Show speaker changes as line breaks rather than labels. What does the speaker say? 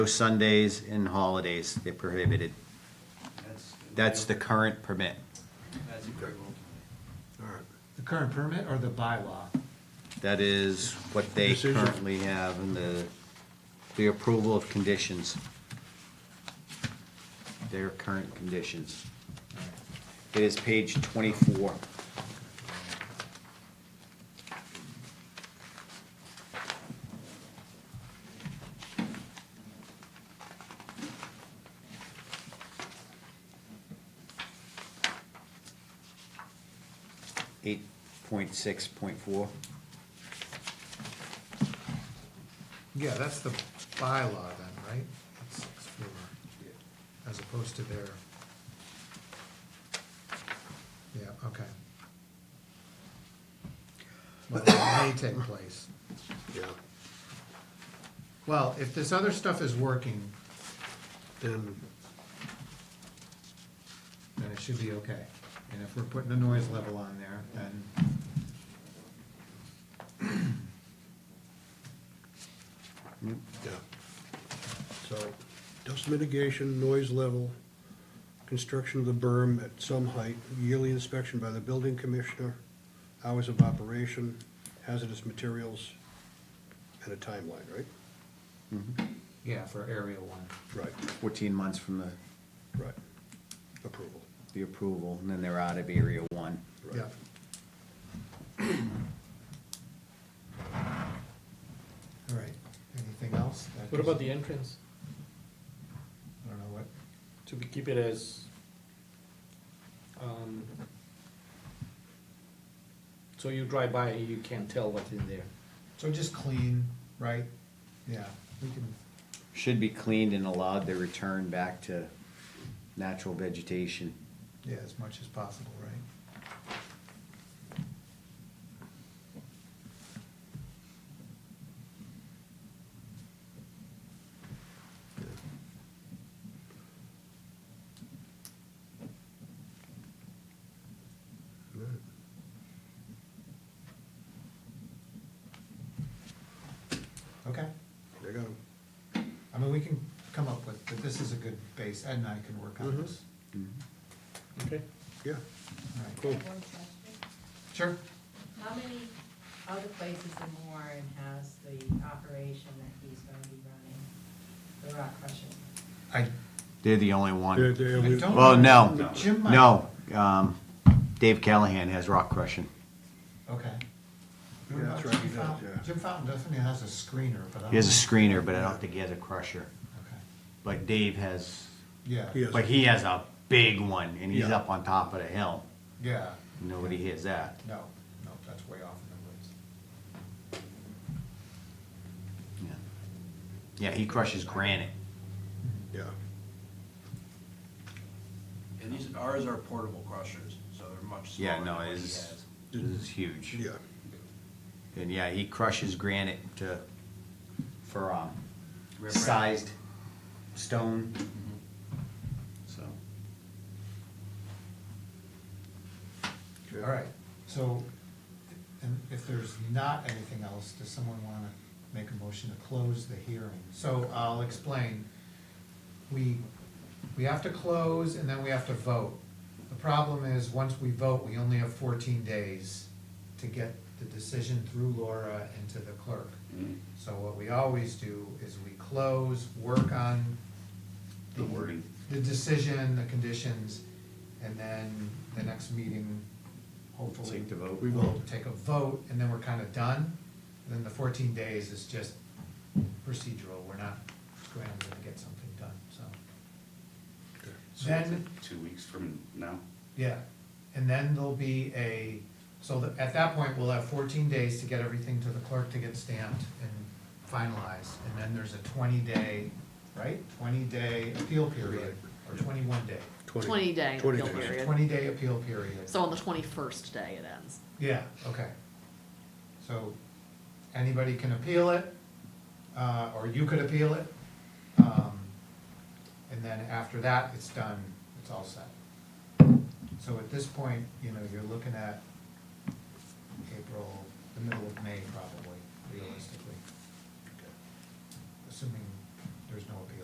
Sundays and holidays, they're prohibited.
That's-
That's the current permit.
That's agreeable.
The current permit or the bylaw?
That is what they
Decision.
currently have in the, the approval of conditions. Their current conditions. It is page twenty-four. Eight point six point four.
Yeah, that's the bylaw then, right? It's six four, as opposed to their. Yeah, okay. Well, it may take place.
Yeah,
Well, if this other stuff is working,
then,
then it should be okay. And if we're putting a noise level on there, then,
yeah. So, dust mitigation, noise level, construction of the berm at some height, yearly inspection by the building commissioner, hours of operation, hazardous materials, and a timeline, right?
Yeah, for area one.
Right,
Fourteen months from the,
right. Approval.
the approval, and then they're out of area one.
right.
yeah. All right, anything else? That
What about
just-
the entrance?
I don't know what,
Should we keep it as, um, so you drive by, you can't tell what's in there?
so just clean, right? Yeah, we can.
Should be cleaned and allowed to return back to natural vegetation.
Yeah, as much as possible, right? Okay,
They got 'em.
I mean, we can come up with, but this is a good base, Ed and I can work on
Mhm.
this.
Okay.
yeah,
All right.
cool.
One question.
Sure.
How many other places in Warren has the operation that he's gonna be running, the rock crushing?
I,
They're the only
They're-
one.
I
they're- we-
don't.
Well,
know.
no,
Jim might-
no, um, Dave Callahan has rock crushing.
Okay. What
Yeah,
about
that's right,
Jim
he does,
Fountain?
yeah.
Jim Fountain definitely has a screener, but I don't.
He has a screener, but I don't think he has a crusher.
Okay,
But Dave has,
yeah,
Yeah.
but he has a big one, and he's
Yeah.
up on top of the hill.
yeah,
Nobody hears that.
no, no, that's way off in the woods.
Yeah. Yeah, he crushes granite.
Yeah,
And these, ours are portable crushers, so they're much smaller
Yeah,
than
no,
what he
it's,
has.
it's huge.
yeah.
And yeah, he crushes granite to, for, um,
Riprap.
sized stone. So,
Okay.
All right, so, and if there's not anything else, does someone wanna make a motion to close the hearing? So I'll explain. We, we have to close and then we have to vote. The problem is, once we vote, we only have fourteen days to get the decision through Laura and to the clerk. So what we always do is we close, work on
the wording.
the decision, the conditions, and then the next meeting, hopefully.
Take the vote.
We will take a vote, and then we're kind of done. And Then the fourteen days is just procedural, we're not scrambling to get something done, so.
So
Then-
it's like two weeks from now?
Yeah, and then there'll be a, so that, at that point, we'll have fourteen days to get everything to the clerk to get stamped and finalized. And then there's a twenty-day, right, twenty-day appeal period, or twenty-one day,
Twenty day
Twenty
appeal
days.
period.
twenty-day appeal period.
So on the twenty-first day it ends.
Yeah, okay. So, anybody can appeal it, uh, or you could appeal it. Um, and then after that, it's done, it's all set. So at this point, you know, you're looking at April, the middle of May probably, realistically. Assuming there's no appeal.